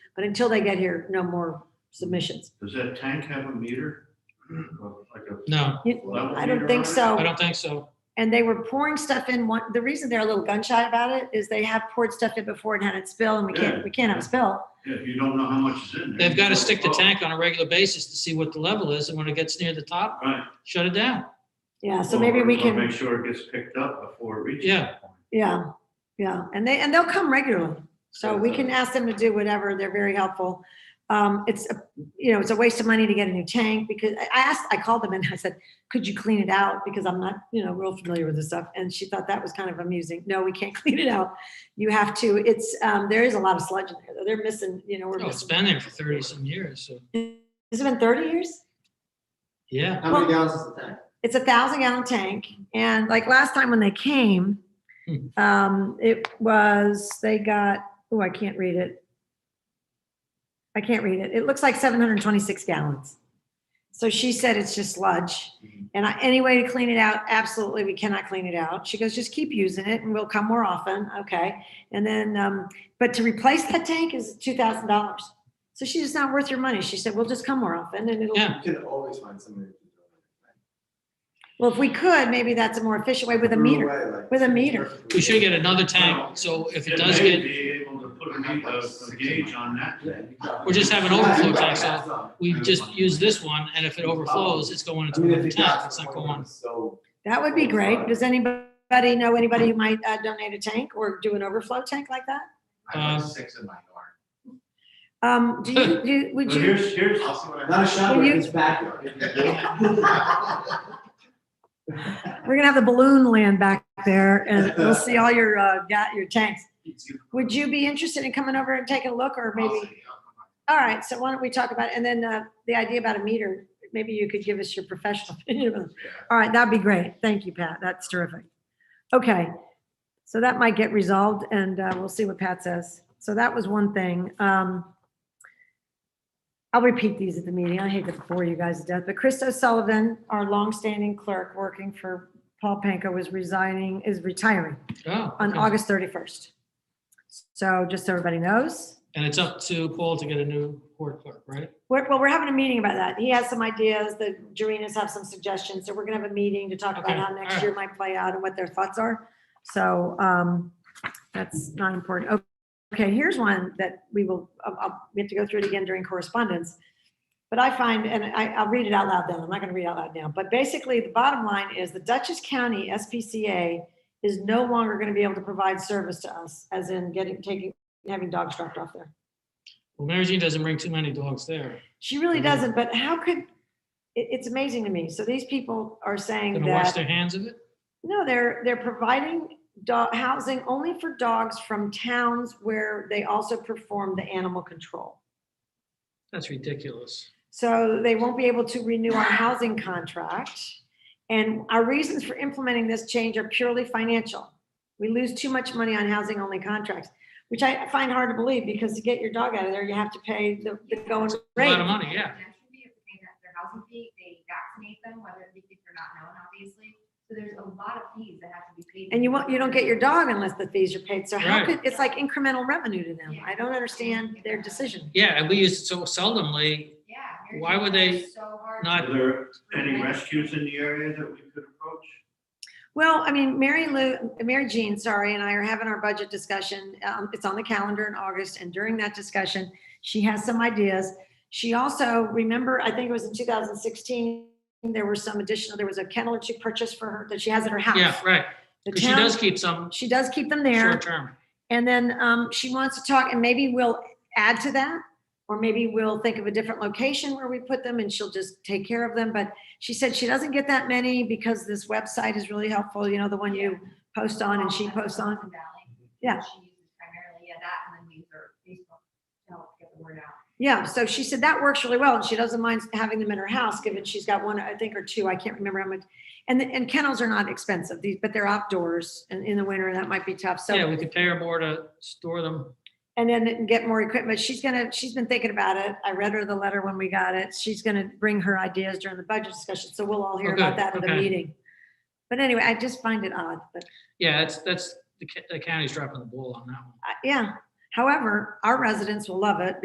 But until they get here, no more submissions. Does that tank have a meter? Hmm. Like a No, level I don't meter think on it? so. I don't think so. And they were pouring stuff in one, the reason they're a little gun shy about it is they have poured stuff in before and had it spill and we can't, we can't have a spill. Yeah, you don't know how much is in there. They've got to stick the Oh, tank on a regular basis to see what the level is, and when it gets near the top, Right. shut it down. Yeah, so Well, maybe we we're gonna can, Make sure it gets picked up before it reaches. Yeah. that point. yeah, yeah. And they, and they'll come regularly. So we can ask them to do whatever. They're very helpful. Um, it's, a- you know, it's a waste of money to get a new tank because I I asked, I called them and I said, could you clean it out? Because I'm not, you know, real familiar with this stuff. And she thought that was kind of amusing. No, we can't clean it out. You have to, it's, um, there is a lot of sludge in there. though. They're missing, you know, we're Oh, It's missing. been there for thirty some years, so, Has it been thirty years? yeah. How many gallons is the tank? It's a thousand gallon tank. And like last time when they came, Hmm. um, it was, they got, oh, I can't read it. I can't read it. It looks like seven hundred and twenty-six gallons. So she said it's just sludge. Hmm. And I, any way to clean it out, absolutely, we cannot clean it out. She goes, just keep using it and we'll come more often. Okay. And then, um, but to replace that tank is two thousand dollars. So she's just not worth your money. She said, we'll just come more often and it'll. Yeah. You can always find somebody. to do it. Well, if we could, maybe that's a more efficient way with a Threw meter. away, like, With a meter. perfectly- We should get another tank, so if it does may get, Be able to put a me- a a gauge on that. Yeah, you got it. Or just have an overflow tank, so we just use this one, and if it overflows, it's going I into mean, another if you tank, got. it's not going. So. That would be great. Does anybody know anybody who might uh, donate a tank or do an overflow tank like that? I have Um, six in my yard. Um, do you, do, would But you, here's, here's, Not a shower, you- it's backyard. we're gonna have the balloon land back there and we'll see all your, uh, ga- your tanks. Would you be interested in coming over and taking a look or maybe? All right, so why don't we talk about, it? and then, uh, the idea about a meter, maybe you could give us your professional opinion. All right, that'd be great. Thank you, Pat. That's terrific. Okay, so that might get resolved and uh, we'll see what Pat says. So that was one thing. Um, I'll repeat these at the meeting. I hate to bore you guys to death, but Chris O'Sullivan, our longstanding clerk working for Paul Panko is resigning, is retiring Oh, on okay. August 31st. So just so everybody knows. And it's up to Paul to get a new board clerk, right? We're, well, we're having a meeting about that. He has some ideas, the Jerinas have some suggestions, so we're gonna have a meeting to talk about Okay, how next year might play out and what their thoughts are. So, um, that's not important. O- Okay, here's one that we will, I'll- I'll- we have to go through it again during correspondence. But I find, and I, I'll read it out loud then, I'm not gonna read it out loud now, but basically, the bottom line is the Dutchess County SPCA is no longer gonna be able to provide service to us, as in getting, taking, having dogs dropped off there. Well, Mary Jean doesn't bring too many dogs there. She really Mhm. doesn't, but how could, it, it's amazing to me. So these people are saying Gonna wash that, their hands of it? no, they're, they're providing dog, housing only for dogs from towns where they also perform the animal control. That's ridiculous. So they won't be able to renew our housing contract. And our reasons for implementing this change are purely financial. We lose too much money on housing only contracts, which I find hard to believe because to get your dog out of there, you have to pay the, the going A lot of rate. money, yeah. They have to pay that- Their housing fee, they vaccinate them, whether they think they're not known, obviously. So there's a lot of fees that have to be paid. And you won't, you don't get your dog unless the fees are paid. So how Right. could, it's like incremental revenue to them. Yeah. I don't understand their decision. Yeah, and we use it so seldomly. Yeah. Mary Why Jo, would they that's so hard not- to- Are there any rescues in the area that we could approach? Well, I mean, Mary Lou, Mary Jean, sorry, and I are having our budget discussion. Um, it's on the calendar in August and during that discussion, she has some ideas. She also, remember, I think it was in two thousand sixteen, there were some additional, there was a kennel that she purchased for her that she has at her house. Yeah, right. The Because she town- does keep some She does keep them there. short term. And then um, she wants to talk, and maybe we'll add to that, or maybe we'll think of a different location where we put them and she'll just take care of them. But she said she doesn't get that many because this website is really helpful, you know, the one you post on and she That's posts on. Hudson Valley. Yeah. She uses primarily, yeah, that, and then we use her Facebook to help get the word out. Yeah, so she said that works really well, and she doesn't mind having them in her house, given she's got one, I think, or two, I can't remember how much. And, and kennels are not expensive, these, but they're outdoors, and in the winter, that might be tough, so. Yeah, we could pay her more to store them. and then get more equipment. She's gonna, she's been thinking about it. I read her the letter when we got it. She's gonna bring her ideas during the budget discussion, so we'll all hear about Okay, that at the okay. meeting. But anyway, I just find it odd, but, Yeah, that's, that's, the ca- the county's dropping the ball on that one. uh, yeah. However, our residents will love it